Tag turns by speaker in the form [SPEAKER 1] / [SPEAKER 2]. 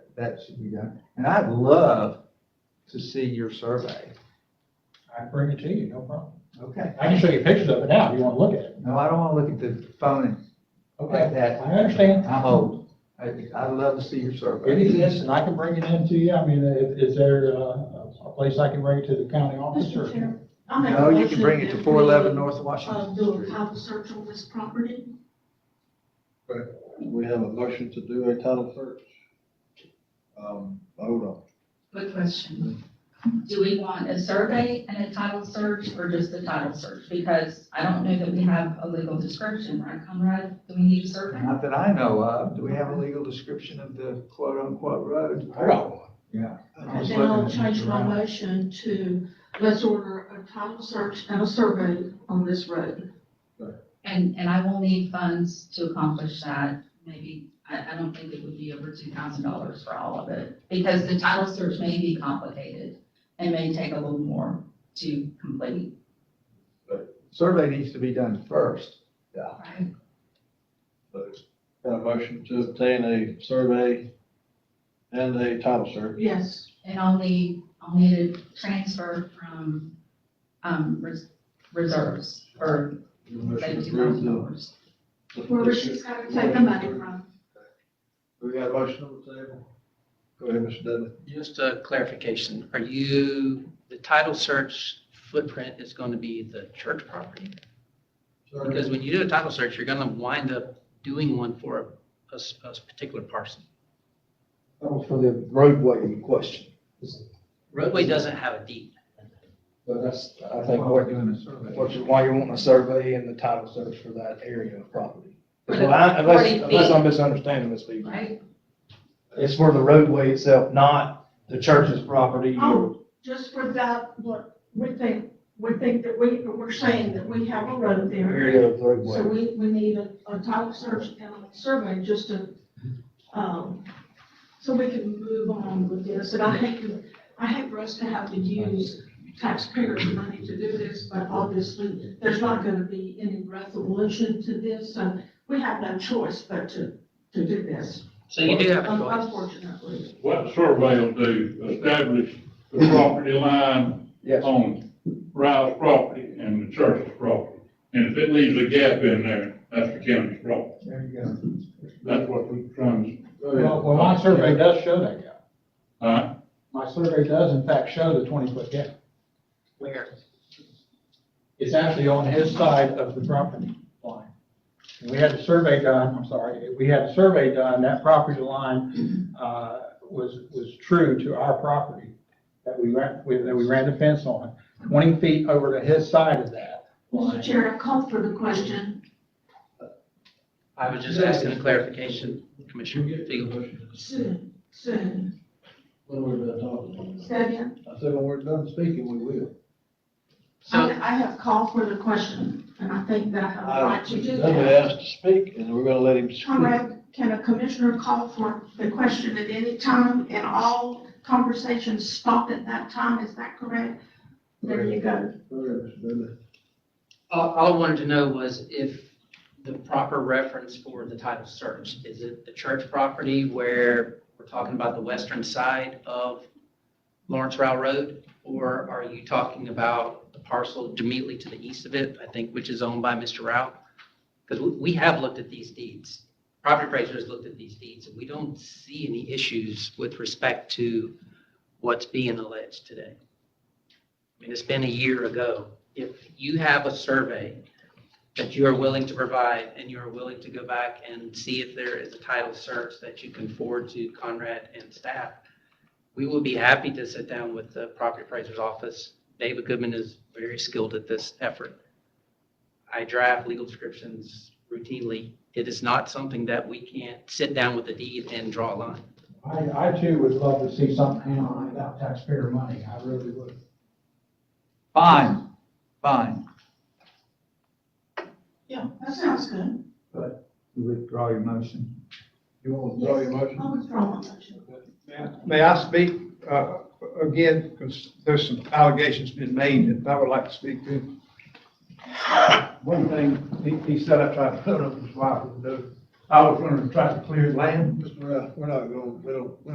[SPEAKER 1] that should be done. And I'd love to see your survey.
[SPEAKER 2] I can bring it to you, no problem.
[SPEAKER 1] Okay.
[SPEAKER 2] I can show you pictures of it now if you want to look at it.
[SPEAKER 1] No, I don't want to look at the phone like
[SPEAKER 2] Okay, I
[SPEAKER 1] that.
[SPEAKER 2] understand.
[SPEAKER 1] I'm old. I, I'd love to see your
[SPEAKER 2] It
[SPEAKER 1] survey.
[SPEAKER 2] exists and I can bring it in to you. I mean, is, is there uh, a place I can bring it to the county office
[SPEAKER 3] Mr.
[SPEAKER 2] or?
[SPEAKER 3] Chair. I make a
[SPEAKER 1] No, you can
[SPEAKER 3] motion
[SPEAKER 1] bring it
[SPEAKER 3] that
[SPEAKER 1] to
[SPEAKER 3] we,
[SPEAKER 1] four eleven North
[SPEAKER 3] uh,
[SPEAKER 1] Washington
[SPEAKER 3] Do a
[SPEAKER 1] Street.
[SPEAKER 3] title search on this property.
[SPEAKER 4] We have a motion to do a title search. Um, hold on.
[SPEAKER 5] Quick question. Do we want a survey and a title search or just the title search? Because I don't know that we have a legal description, right, Conrad? Do we need a survey?
[SPEAKER 1] Not that I know of. Do we have a legal description of the quote unquote road?
[SPEAKER 2] I got one.
[SPEAKER 1] I
[SPEAKER 3] And
[SPEAKER 1] was
[SPEAKER 3] then I'll
[SPEAKER 1] looking at
[SPEAKER 3] change my
[SPEAKER 1] Jerome.
[SPEAKER 3] motion to, let's order a title search and a survey on this road.
[SPEAKER 5] And, and I will need funds to accomplish that. Maybe, I, I don't think it would be over two thousand dollars for all of it. Because the title search may be complicated and may take a little more to complete,
[SPEAKER 1] Survey needs to be done first.
[SPEAKER 5] right?
[SPEAKER 4] Got a motion to obtain a survey and a title search.
[SPEAKER 3] Yes,
[SPEAKER 5] And I'll need, I'll need a transfer from, um, res- reserves or
[SPEAKER 4] Motion
[SPEAKER 5] Thank
[SPEAKER 4] to
[SPEAKER 5] you, Madam
[SPEAKER 4] approve
[SPEAKER 5] Chair.
[SPEAKER 4] the-
[SPEAKER 3] where she's gotta take the money from.
[SPEAKER 4] We got a motion on the table. Go ahead, Mr. Dudley.
[SPEAKER 6] Just a clarification, are you, the title search footprint is going to be the church property? Because when you do a title search, you're going to wind up doing one for a- a, s- a s- particular parcel.
[SPEAKER 7] That was for the roadway in question,
[SPEAKER 6] Roadway doesn't have a deed.
[SPEAKER 7] but that's, I
[SPEAKER 1] That's
[SPEAKER 7] think,
[SPEAKER 1] why we're
[SPEAKER 7] what,
[SPEAKER 1] doing a survey.
[SPEAKER 7] which is why you want a survey and the title search for that area of property.
[SPEAKER 5] For
[SPEAKER 7] Well,
[SPEAKER 5] the
[SPEAKER 7] I- Unless,
[SPEAKER 5] 40
[SPEAKER 7] unless
[SPEAKER 5] feet.
[SPEAKER 7] I'm misunderstanding this, Steve.
[SPEAKER 5] Right?
[SPEAKER 7] It's for the roadway itself, not the church's property. or-
[SPEAKER 3] Oh, just for that, what, we think, we think that we, we're saying that we have a road there.
[SPEAKER 7] Area of
[SPEAKER 3] Oh. So
[SPEAKER 7] roadway.
[SPEAKER 3] we, we need a, a title search and a survey just to, um, so we can move on with this. And I hate, to- I hate for us to have to use taxpayers' money to do this, but obviously, there's not gonna be any resolution to this, so we have no choice but to, to do this,
[SPEAKER 6] So you do have
[SPEAKER 3] Um,
[SPEAKER 6] a choice.
[SPEAKER 3] unfortunately.
[SPEAKER 8] What the survey will do, establish the property line
[SPEAKER 7] Yes.
[SPEAKER 8] on Rile's property and the church's property. And if it leaves a gap in there, that's the county's problem.
[SPEAKER 1] There you go.
[SPEAKER 8] That's what we're trying
[SPEAKER 4] Go ahead.
[SPEAKER 2] Well, well, my survey does show that gap.
[SPEAKER 8] to, uh,
[SPEAKER 2] My survey does in fact show the twenty foot gap.
[SPEAKER 6] Where?
[SPEAKER 2] It's actually on his side of the property line. And we had a survey done, I'm sorry, we had a survey done, that property line, uh, was, was true to our property that we ran, we- that we ran the fence on, twenty feet over to his side of that
[SPEAKER 3] Mr.
[SPEAKER 2] line.
[SPEAKER 3] Chair, I called for the question.
[SPEAKER 6] I was just asking a clarification, Commissioner Fegel.
[SPEAKER 3] Soon, soon.
[SPEAKER 4] When we're done talking.
[SPEAKER 3] Second,
[SPEAKER 4] I said, when we're done speaking, we will.
[SPEAKER 3] I,
[SPEAKER 6] So,
[SPEAKER 3] I have called for the question, and I think that I have a right to do that.
[SPEAKER 4] Dudley asked to speak, and we're gonna let him speak.
[SPEAKER 3] Conrad, can a commissioner call for the question at any time and all conversations stop at that time? Is that correct? There you go.
[SPEAKER 4] Go ahead, Mr. Dudley.
[SPEAKER 6] all, all I wanted to know was if the proper reference for the title search, is it the church property where we're talking about the western side of Lawrence Rowell Road? Or are you talking about the parcel immediately to the east of it, I think, which is owned by Mr. Rowell? Because we have looked at these deeds. Property appraisers looked at these deeds, and we don't see any issues with respect to what's being alleged today. I mean, it's been a year ago. If you have a survey that you are willing to provide, and you are willing to go back and see if there is a title search that you can forward to Conrad and staff, we will be happy to sit down with the property appraiser's office. David Goodman is very skilled at this effort. I draft legal descriptions routinely. It is not something that we can't sit down with the deed and draw a line.
[SPEAKER 2] I, I too would love to see something on it without taxpayer money, I really would.
[SPEAKER 1] Fine, fine.
[SPEAKER 3] Yeah, that sounds good.
[SPEAKER 1] You withdraw your motion.
[SPEAKER 4] You want to draw your motion?
[SPEAKER 3] I withdraw my motion.
[SPEAKER 9] May I speak uh, again, because there's some allegations been made that I would like to speak to. One thing, he he said I tried to put up his wife, I was running, trying to clear land.
[SPEAKER 4] Mr. Ralph, we're not going, we don't, we